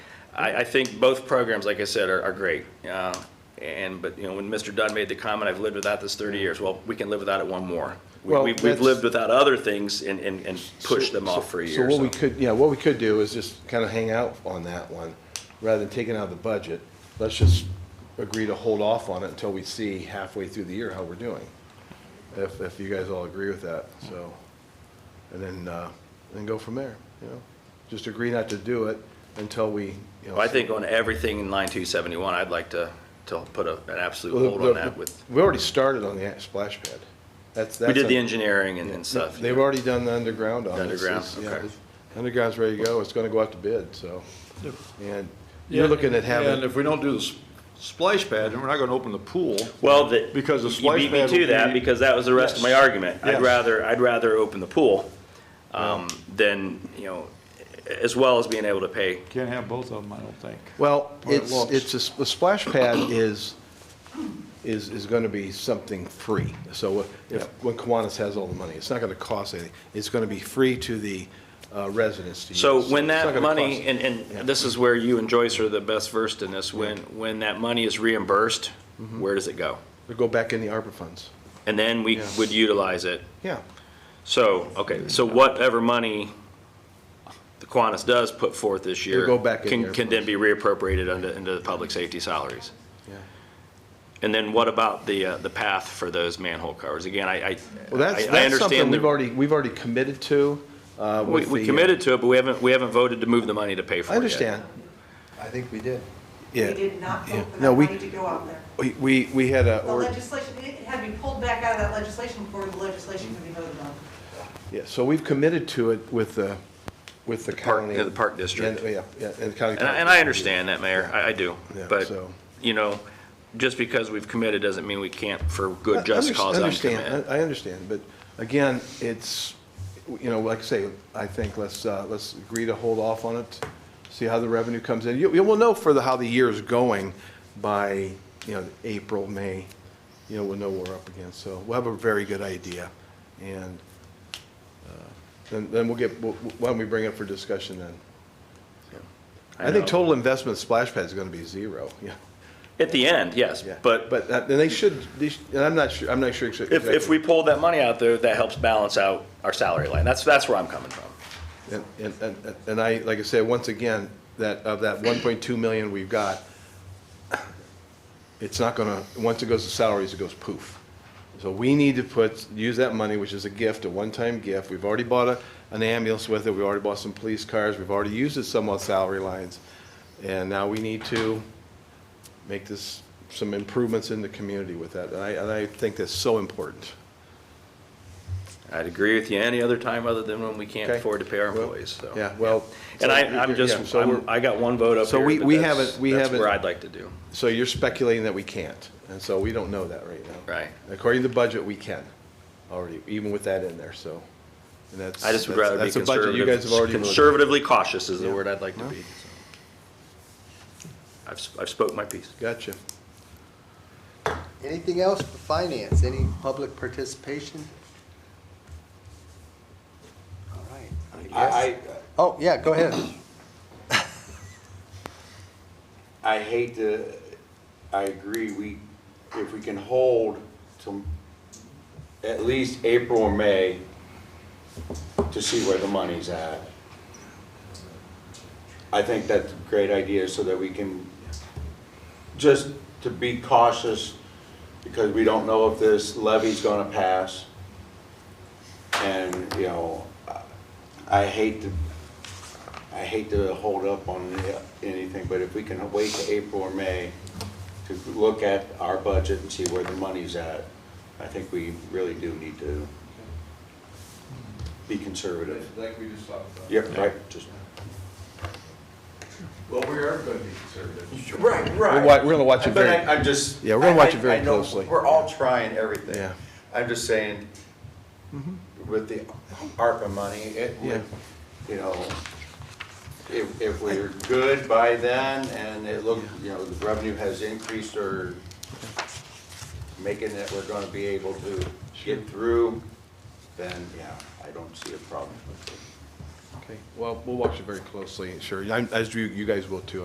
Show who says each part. Speaker 1: I, I think both programs, like I said, are, are great. Uh, And, but, you know, when Mr. Dunn made the comment, I've lived without this 30 years, well, we can live without it one more. We-
Speaker 2: Well,
Speaker 1: We've, we've
Speaker 2: that's-
Speaker 1: lived without other things and, and, and pushed them off for a
Speaker 2: So
Speaker 1: year,
Speaker 2: what we
Speaker 1: so.
Speaker 2: could, yeah, what we could do is just kind of hang out on that one, rather than taking out of the budget. Let's just agree to hold off on it until we see halfway through the year how we're doing. If, if you guys all agree with that, so, and then, uh, then go from there, you know? Just agree not to do it until we, you know.
Speaker 1: Well, I think on everything in line 271, I'd like to, to put a, an absolute
Speaker 2: Well, the-
Speaker 1: hold on
Speaker 2: the-
Speaker 1: that with,
Speaker 2: We already started on the splash pad. That's, that's.
Speaker 1: we did the
Speaker 2: a-
Speaker 1: engineering and and stuff.
Speaker 2: They've already done the underground on it. It's-
Speaker 1: Underground,
Speaker 2: it's- yeah,
Speaker 1: okay.
Speaker 2: it's- Underground's ready to go, it's gonna go out to bid, so, and you're looking at
Speaker 3: And
Speaker 2: having,
Speaker 3: if we don't do the s- splash pad, then we're not gonna open the pool.
Speaker 1: Well, the.
Speaker 3: Because the
Speaker 1: You
Speaker 3: splash
Speaker 1: beat me
Speaker 3: pad
Speaker 1: to
Speaker 3: will
Speaker 1: that,
Speaker 3: be-
Speaker 1: because that was the rest of my argument. I'd
Speaker 3: Yes.
Speaker 1: rather, I'd rather open the pool, um, than, you know, as well as being able to pay.
Speaker 3: Can't have both of them, I don't think.
Speaker 2: well,
Speaker 3: Where it
Speaker 2: it's,
Speaker 3: looks.
Speaker 2: it's, a s- the splash pad is, is, is gonna be something free. So if, when Kiwanis has all the money, it's not gonna cost anything, it's gonna be free to the uh, residents to use.
Speaker 1: So when
Speaker 2: It's
Speaker 1: that
Speaker 2: not gonna
Speaker 1: money,
Speaker 2: cost-
Speaker 1: and, and this is where you and Joyce are the best versed in this, when, when that money is reimbursed,
Speaker 2: Mm-hmm.
Speaker 1: where does it go?
Speaker 2: It'll go back in the ARPA funds,
Speaker 1: And then we
Speaker 2: Yeah.
Speaker 1: would utilize it.
Speaker 2: yeah.
Speaker 1: So, okay, so whatever money the Kiwanis does put forth this year.
Speaker 2: It'll go back in
Speaker 1: Can,
Speaker 2: there
Speaker 1: can then
Speaker 2: first.
Speaker 1: be reappropriated under, into the public safety salaries.
Speaker 2: yeah.
Speaker 1: And then what about the, uh, the path for those manhole covers? Again, I, I.
Speaker 2: Well, that's,
Speaker 1: I- I
Speaker 2: that's
Speaker 1: understand
Speaker 2: something
Speaker 1: the-
Speaker 2: we've already, we've already committed to, uh,
Speaker 1: We,
Speaker 2: with the.
Speaker 1: we
Speaker 2: uh,
Speaker 1: committed to it, but we haven't, we haven't voted to move the money to pay for it
Speaker 2: I
Speaker 1: yet.
Speaker 2: understand,
Speaker 4: I think we did.
Speaker 2: yeah.
Speaker 5: We did not
Speaker 2: yeah.
Speaker 5: vote for
Speaker 2: No,
Speaker 5: that
Speaker 2: we-
Speaker 5: money to go out there.
Speaker 2: We, we we had a,
Speaker 5: The
Speaker 2: or-
Speaker 5: legislation, it had to be pulled back out of that legislation before the legislation could be voted on.
Speaker 2: yeah, so we've committed to it with the, with the
Speaker 1: park-
Speaker 2: county.
Speaker 1: yeah, the park district.
Speaker 2: And- Yeah, yeah, and the county.
Speaker 1: And I, and I understand that, Mayor, I, I do.
Speaker 2: Yeah,
Speaker 1: But,
Speaker 2: so-
Speaker 1: you know, just because we've committed doesn't mean we can't for
Speaker 2: I-
Speaker 1: good just
Speaker 2: underst-
Speaker 1: cause
Speaker 2: Understand,
Speaker 1: uncommit.
Speaker 2: I I understand, but again, it's, you know, like I say, I think let's, uh, let's agree to hold off on it, see how the revenue comes in. You, you will know for the, how the year is going by, you know, April, May, you know, we'll know what we're up against. So we'll have a very good idea, and uh, then, then we'll get, we'll- why don't we bring it for discussion then? I think
Speaker 1: know.
Speaker 2: total investment splash pad is gonna be zero, yeah.
Speaker 1: At the end, yes,
Speaker 2: Yeah,
Speaker 1: but, but
Speaker 2: But, uh, and they should, they sh- and I'm not sure, I'm not sure. exa-
Speaker 1: if, if
Speaker 2: exactly.
Speaker 1: we pull that money out there, that helps balance out our salary line. That's, that's where I'm coming from.
Speaker 2: And, and, and- and I, like I said, once again, that, of that one point two million we've got, it's not gonna, once it goes to salaries, it goes poof. So we need to put, use that money, which is a gift, a one-time gift. We've already bought a, an ambulance with it, we already bought some police cars, we've already used it some on salary lines. And now we need to make this, some improvements in the community with that. And I, and I think that's so important.
Speaker 1: I'd agree with you any other time other than when we can't
Speaker 2: Okay.
Speaker 1: afford to pay our
Speaker 2: Well,
Speaker 1: employees, so.
Speaker 2: Yeah, well.
Speaker 1: And I,
Speaker 2: so-
Speaker 1: I'm
Speaker 2: yeah,
Speaker 1: just,
Speaker 2: so we're-
Speaker 1: I'm- I got one vote up
Speaker 2: So
Speaker 1: here,
Speaker 2: we-
Speaker 1: but
Speaker 2: we
Speaker 1: that's-
Speaker 2: haven't- we
Speaker 1: That's
Speaker 2: haven't-
Speaker 1: where I'd like to do.
Speaker 2: So you're speculating that we can't, and so we don't know that right now.
Speaker 1: Right.
Speaker 2: According to the budget, we can, already, even with that in there, so. and that's-
Speaker 1: I just would
Speaker 2: that's-
Speaker 1: rather be
Speaker 2: that's a budget you guys have
Speaker 1: conservative,
Speaker 2: already voted.
Speaker 1: conservatively cautious is the
Speaker 2: Yeah.
Speaker 1: word I'd like to
Speaker 2: Well.
Speaker 1: be. so. I've, s- I've spoke my piece.
Speaker 2: Gotcha.
Speaker 4: Anything else for finance? Any public participation? All right, I guess.
Speaker 6: I,
Speaker 4: Oh, yeah, go ahead.
Speaker 6: I, I hate to, I agree, we, if we can hold till at least April or May to see where the money's at. I think that's a great idea so that we can, just to be cautious, because we don't know if this levy's gonna pass. And, you know, I- I hate to I hate to hold up on anything, but if we can wait to April or May to look at our budget and see where the money's at, I think we really do need to be conservative.
Speaker 2: Like we just talked about.
Speaker 6: Yep, right, just.
Speaker 2: Well, we are gonna be conservative.
Speaker 6: Right,
Speaker 2: We're wa- we're gonna watch it
Speaker 6: But
Speaker 2: very-
Speaker 6: I, I'm just.
Speaker 2: Yeah, we're gonna
Speaker 6: I-
Speaker 2: watch it
Speaker 6: I-
Speaker 2: very
Speaker 6: I know
Speaker 2: closely.
Speaker 6: We're all trying everything.
Speaker 2: Yeah.
Speaker 6: I'm just saying, with the ARPA money, it,
Speaker 2: Yeah.
Speaker 6: would, you know, if, if we're good by then and it look, you know, the revenue has increased or making that we're gonna be able to get through, then, yeah, I don't see a problem with it.
Speaker 2: Okay, well, we'll watch it very closely, sure, I'm- as you, you guys will too,